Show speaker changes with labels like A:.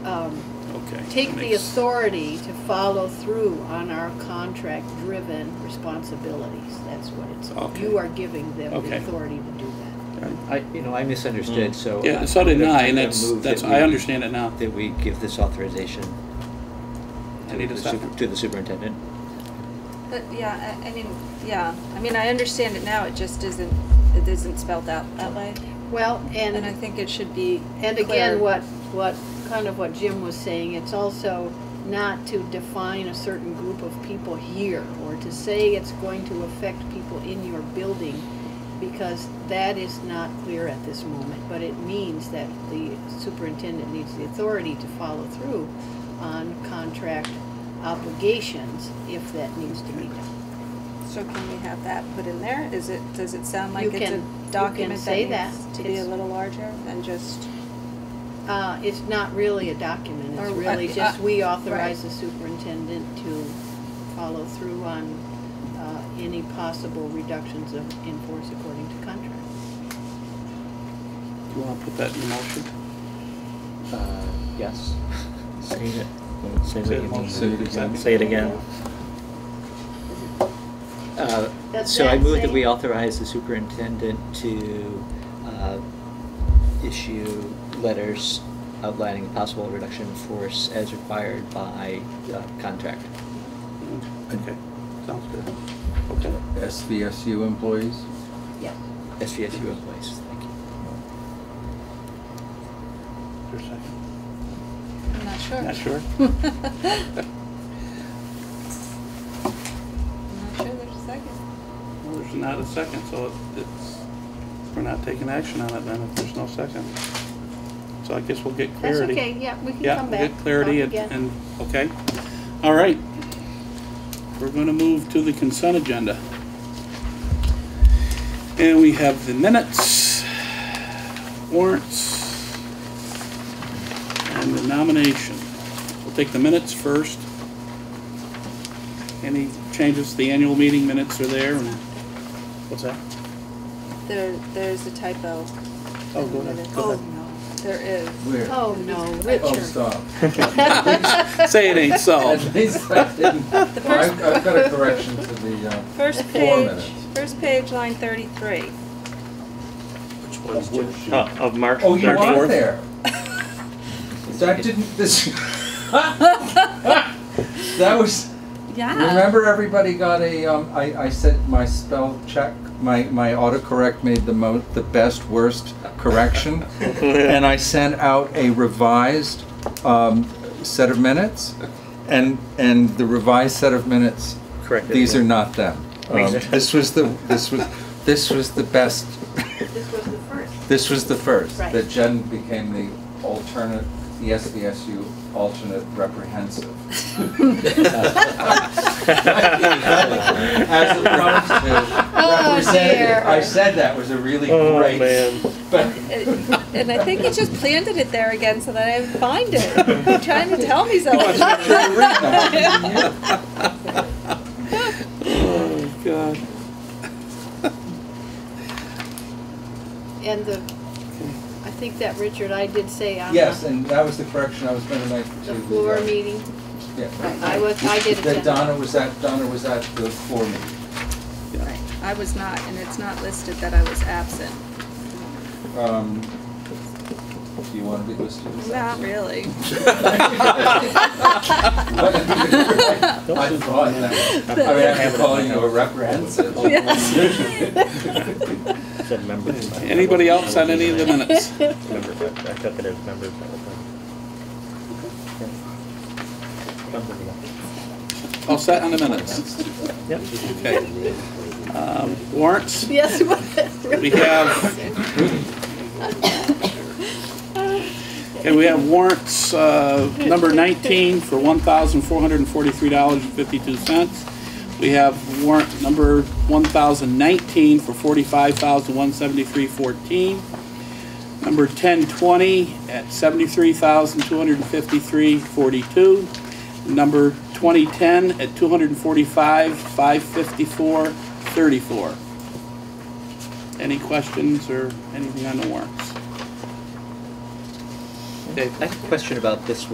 A: um, take the
B: Makes-
A: authority to follow through on our contract-driven responsibilities. That's what it's,
B: Okay.
A: you are giving them
B: Okay.
A: the authority to do that.
C: I, you know, I misunderstood, so.
B: Mm. Yeah,
C: I-
B: so
C: I'm
B: did
C: gonna-
B: I,
C: I'm
B: and
C: gonna
B: that's,
C: move
B: that's,
C: that
B: I
C: we-
B: understand it now.
C: That we give this authorization
B: I
C: to
B: need a
C: the
B: second.
C: super- to the superintendent.
D: But, yeah, I, I mean, yeah, I mean, I understand it now, it just isn't, it isn't spelled out that way.
A: Well, and.
D: And I think it should be
A: And again,
D: clear.
A: what, what, kind of what Jim was saying, it's also not to define a certain group of people here, or to say it's going to affect people in your building, because that is not clear at this moment, but it means that the superintendent needs the authority to follow through on contract obligations, if that needs to be done.
D: So can we have that put in there? Is it, does it sound
A: You
D: like it's
A: can-
D: a
A: you can
D: document that
A: say that.
D: needs to be a
A: It's-
D: little larger than just?
A: Uh, it's not really a document, it's
D: Or-
A: really
D: uh,
A: just, we
D: uh,
A: authorize
D: right.
A: the superintendent to follow through on, uh, any possible reductions of, in force according to contract.
B: Do you want to put that in motion?
C: Uh, Yes.
E: Say it. Say what you mean.
B: Say it again.
E: Say it again.
C: Uh,
A: Does
C: So I
A: that
C: move that
A: say-
C: we authorize the superintendent to uh, issue letters outlining possible reduction in force as required by uh, contract.
B: Okay, sounds good. Okay,
F: SVSU employees?
A: Yes.
C: SVSU employees, thank you.
B: for a second.
D: I'm not sure.
B: Not sure?
D: I'm not sure there's a second.
B: Well, There's not a second, so it- it's, we're not taking action on it then if there's no second. So I guess we'll get
A: That's
B: clarity.
A: okay, yeah, we can
B: Yeah,
A: come
B: we'll
A: back.
B: get clarity
A: talk
B: and,
A: again.
B: and, okay. All right. We're gonna move to the consent agenda. And we have the minutes, warrants, and the nomination. We'll take the minutes first. Any changes, to the annual meeting minutes are there and, what's that?
D: There, there's a typo.
B: Oh, go ahead, go ahead.
A: no.
D: There is.
F: Where?
A: Oh, no,
F: Oh,
A: Richard.
F: stop.
B: Say it ain't so.
F: At least I didn't, I've
D: The
F: I've
D: first,
F: got a correction to the, uh,
D: first page,
F: minutes.
D: first page, line thirty-three.
E: Uh, Of March
F: oh, you
B: March
F: are
B: fourth.
F: there. That didn't, this. That was, remember everybody got a, um, I, I said my spell check, my, my autocorrect made the mo, the best worst correction. And I sent out a revised, um, set of minutes. And, and the revised set of minutes
E: Correct.
F: These are not them. Um,
E: These are-
F: This was the, this was, this was the best,
A: This was the first.
F: this was the first.
A: Right.
F: That Jen became the alternate, the SBSU alternate reprehensive. As opposed to representative. I
A: Oh, dear.
F: said that was a really
E: Oh,
F: great.
E: man.
F: but-
D: Uh, And I think he just planted it there again so that I would find it. You're trying to tell me something.
B: Oh, God.
A: And the, I think that, Richard, I did say on
F: Yes,
A: the
F: and that was the correction I was gonna make to.
A: the floor
F: uh,
A: meeting,
F: yeah.
A: I was, I did
F: That
A: attend.
F: Donna was at, Donna was at the floor meeting.
D: I was not, and it's not listed that I was absent.
F: Um, Do you want to be listed as
D: Not really.
F: that? I thought that. I mean, I'm calling you a reprehensive.
E: Said members.
B: Anybody else on any of the minutes?
E: Member, I took it as members. all the time.
B: All set on the minutes?
E: Yep.
B: Okay. Um, Warrants,
A: Yes, it was.
B: we have... Okay, we have warrants, uh, number 19 for $1,443.52. We have warrant number 1,019 for $45,173.14. Number 1020 at $73,253.42. number 2010 at 245, 554, 34. Any questions or anything on the warrants? Dave?
C: I have a question about this one.